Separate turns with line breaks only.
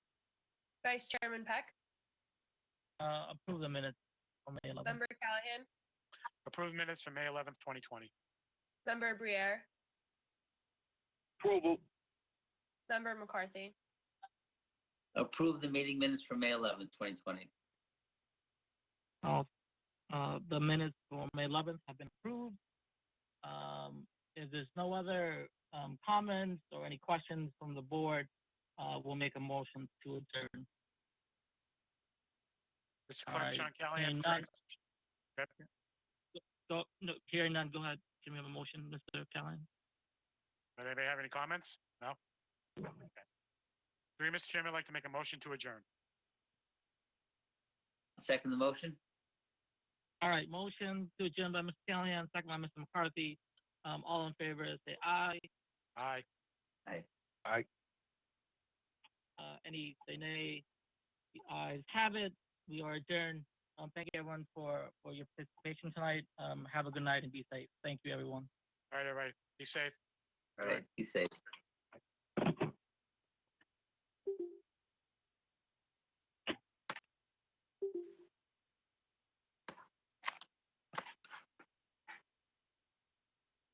Vice Chairman Peck,
Uh, approve the minutes on May 11th.
Member Callahan,
Approved minutes for May 11th, 2020.
Member Briere,
Approval.
Member McCarthy,
Approve the meeting minutes for May 11, 2020.
All, uh, the minutes for May 11th have been approved. Um, if there's no other, um, comments or any questions from the board, uh, we'll make a motion to adjourn.
This is
All
Clerk
right.
Sean Callahan.
And none-
correct?
So, no, hearing none, go ahead. Can we have a motion, Mr. Callahan?
Does anybody have any comments? No? Okay. Three, Mr. Chairman, I'd like to make a motion to adjourn.
Second the motion?
All right, motion to adjourn by Mr. Callahan, second by Mr. McCarthy. Um, all in favor, say aye.
Aye.
Uh, any say nay. The ayes have it. We are adjourned. Um, thank you everyone for, for your participation tonight. Um, have a good night and be safe. Thank you, everyone.
All right, everybody. Be safe.
All right, be safe.